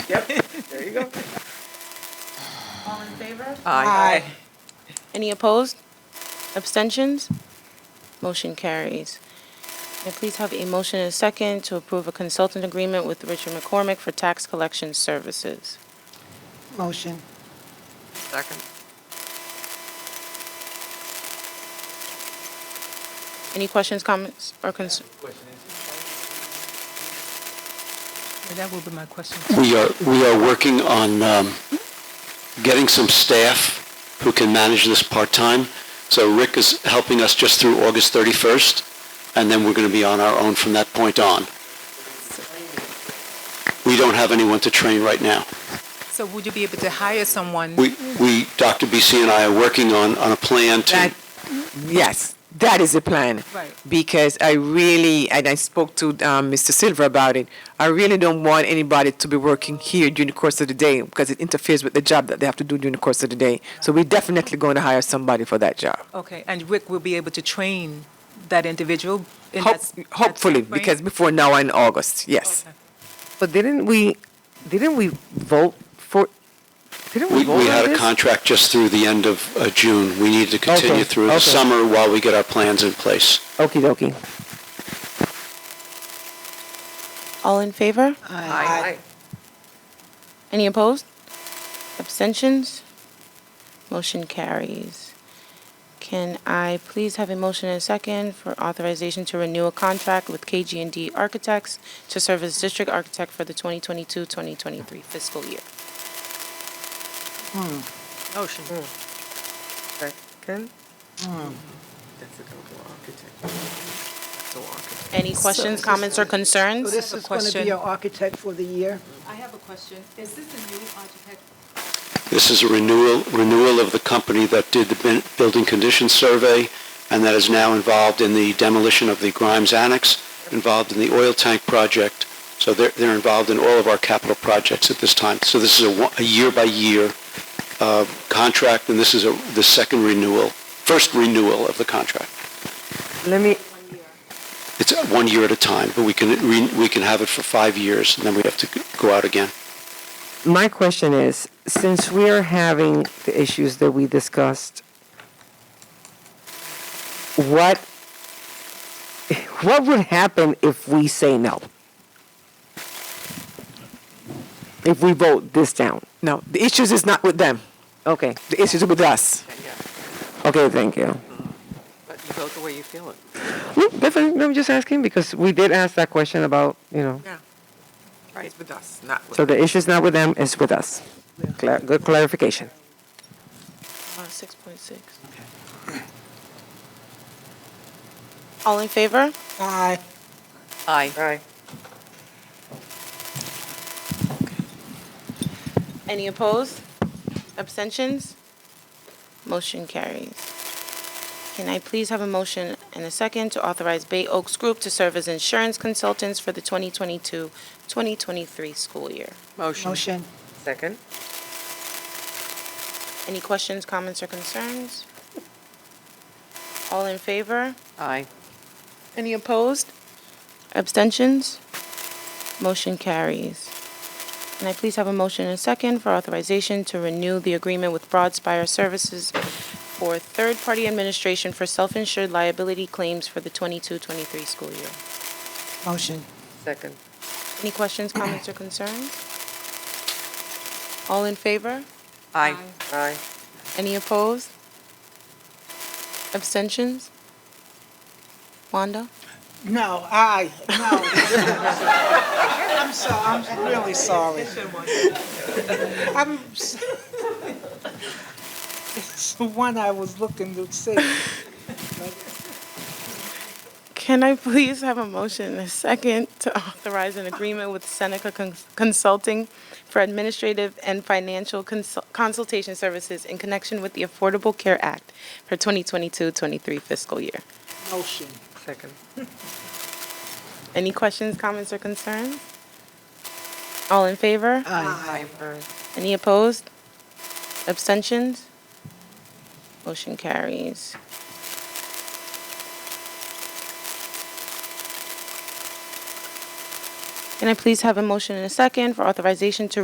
Yep, there you go. All in favor? Aye. Any opposed? Abstentions? Motion carries. May I please have a motion and a second to approve a consultant agreement with Richard McCormick for tax collection services? Motion. Second. Any questions, comments, or concerns? That will be my question. We are, we are working on um, getting some staff who can manage this part-time. So Rick is helping us just through August 31st, and then we're going to be on our own from that point on. We don't have anyone to train right now. So would you be able to hire someone? We, we, Dr. BC and I are working on, on a plan to, That, yes, that is the plan. Right. Because I really, and I spoke to um, Mr. Silver about it, I really don't want anybody to be working here during the course of the day because it interferes with the job that they have to do during the course of the day. So we're definitely going to hire somebody for that job. Okay, and Rick will be able to train that individual in that. Hope- s- that Hopefully, timeframe? because before now in August, yes. Okay. But didn't we, didn't we vote for, didn't we we, vote on we this? had a contract just through the end of uh, June. We need to Okay, continue through the okay. summer while we get our plans in place. Okey dokey. All in favor? Aye. Any opposed? Abstentions? Motion carries. Can I please have a motion and a second for authorization to renew a contract with KG&D Architects to serve as district architect for the 2022-2023 fiscal year? Motion. Mm, Second. Hmm. That's a double architect. That's a architect. Any questions, comments, or So concerns? this have a is going to question. be our architect for the year? I have a question. Is this a new architect? This is a renewal, renewal of the company that did the bin- building condition survey and that is now involved in the demolition of the Grimes Annex, involved in the oil tank project. So they're, they're involved in all of our capital projects at this time. So this is a, one- a year-by-year uh, contract and this is a, the second renewal, first renewal of the contract. Let me, It's uh, one year at a time, but we can, re- we can have it for five years and then we have to g- go out again. my question is, since we are having the issues that we discussed, what, what would happen if we say no? If we vote this down? No, the issues is not with them. Okay, The issues are with us. okay, thank you. But you vote the way you feel it. Mm, Definitely, I'm just asking because we did ask that question about, you know, Right, it's with us, not with so the issue's not with them, it's with us. Cla- Good clarification. Uh, 6.6. All in favor? Aye. Aye. Aye. Any opposed? Abstentions? Motion carries. Can I please have a motion and a second to authorize Bay Oaks Group to serve as insurance consultants for the 2022-2023 school year? Motion. Second. Any questions, comments, or concerns? All in favor? Aye. Any opposed? Abstentions? Motion carries. Can I please have a motion and a second for authorization to renew the agreement with Broadspire Services for third-party administration for self-insured liability claims for the 22-23 school year? Motion. Second. Any questions, comments, or concerns? All in favor? Aye. Aye. Any opposed? Abstentions? Wanda? No, aye, no. I'm so, I'm really sorry. I'm, s- it's the one I was looking to see. Can I please have a motion and a second to authorize an agreement with Seneca Con- Consulting for administrative and financial consul- consultation services in connection with the Affordable Care Act for 2022-23 fiscal year? Motion. Second. Any questions, comments, or concerns? All in favor? Aye. Any opposed? Abstentions? Motion carries. Can I please have a motion and a second for authorization to